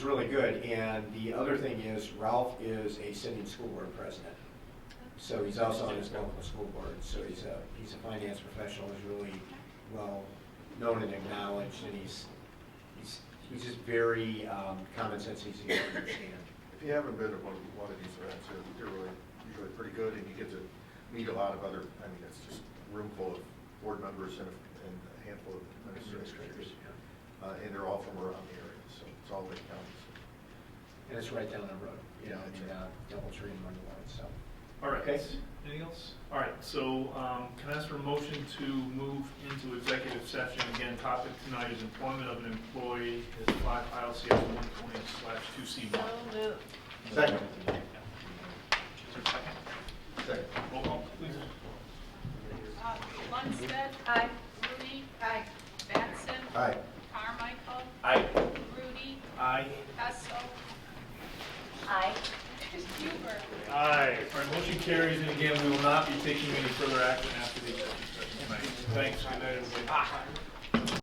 It's really good, and the other thing is Ralph is a sitting school board president. So he's also on his local school board, so he's a, he's a finance professional, he's really well known and acknowledged, and he's, he's, he's just very um, common sense, easy to understand. If you haven't been to one, one of these events, they're, they're really, usually pretty good, and you get to meet a lot of other, I mean, it's just a room full of board members and a- and a handful of administrators. Uh, and they're all from around the area, so it's all Lake County. And it's right down the road, you know, in uh, Doubletree and Mundelein, so. All right, Okay. anything else? All right, so um, can I ask for a motion to move into executive session? Again, topic tonight is employment of an employee, is five ILCS 120 slash 2C1. So moved. Second. Is there a second? Second. Roll call, please. Uh, Lundstedt. Aye. Rudy. Aye. Batson. Aye. Carmichael. Aye. Rudy. Aye. Hessel. Aye. Huber. Aye. All right, motion carries, and again, we will not be taking any further action after the executive session tonight. Thanks, good night, everybody.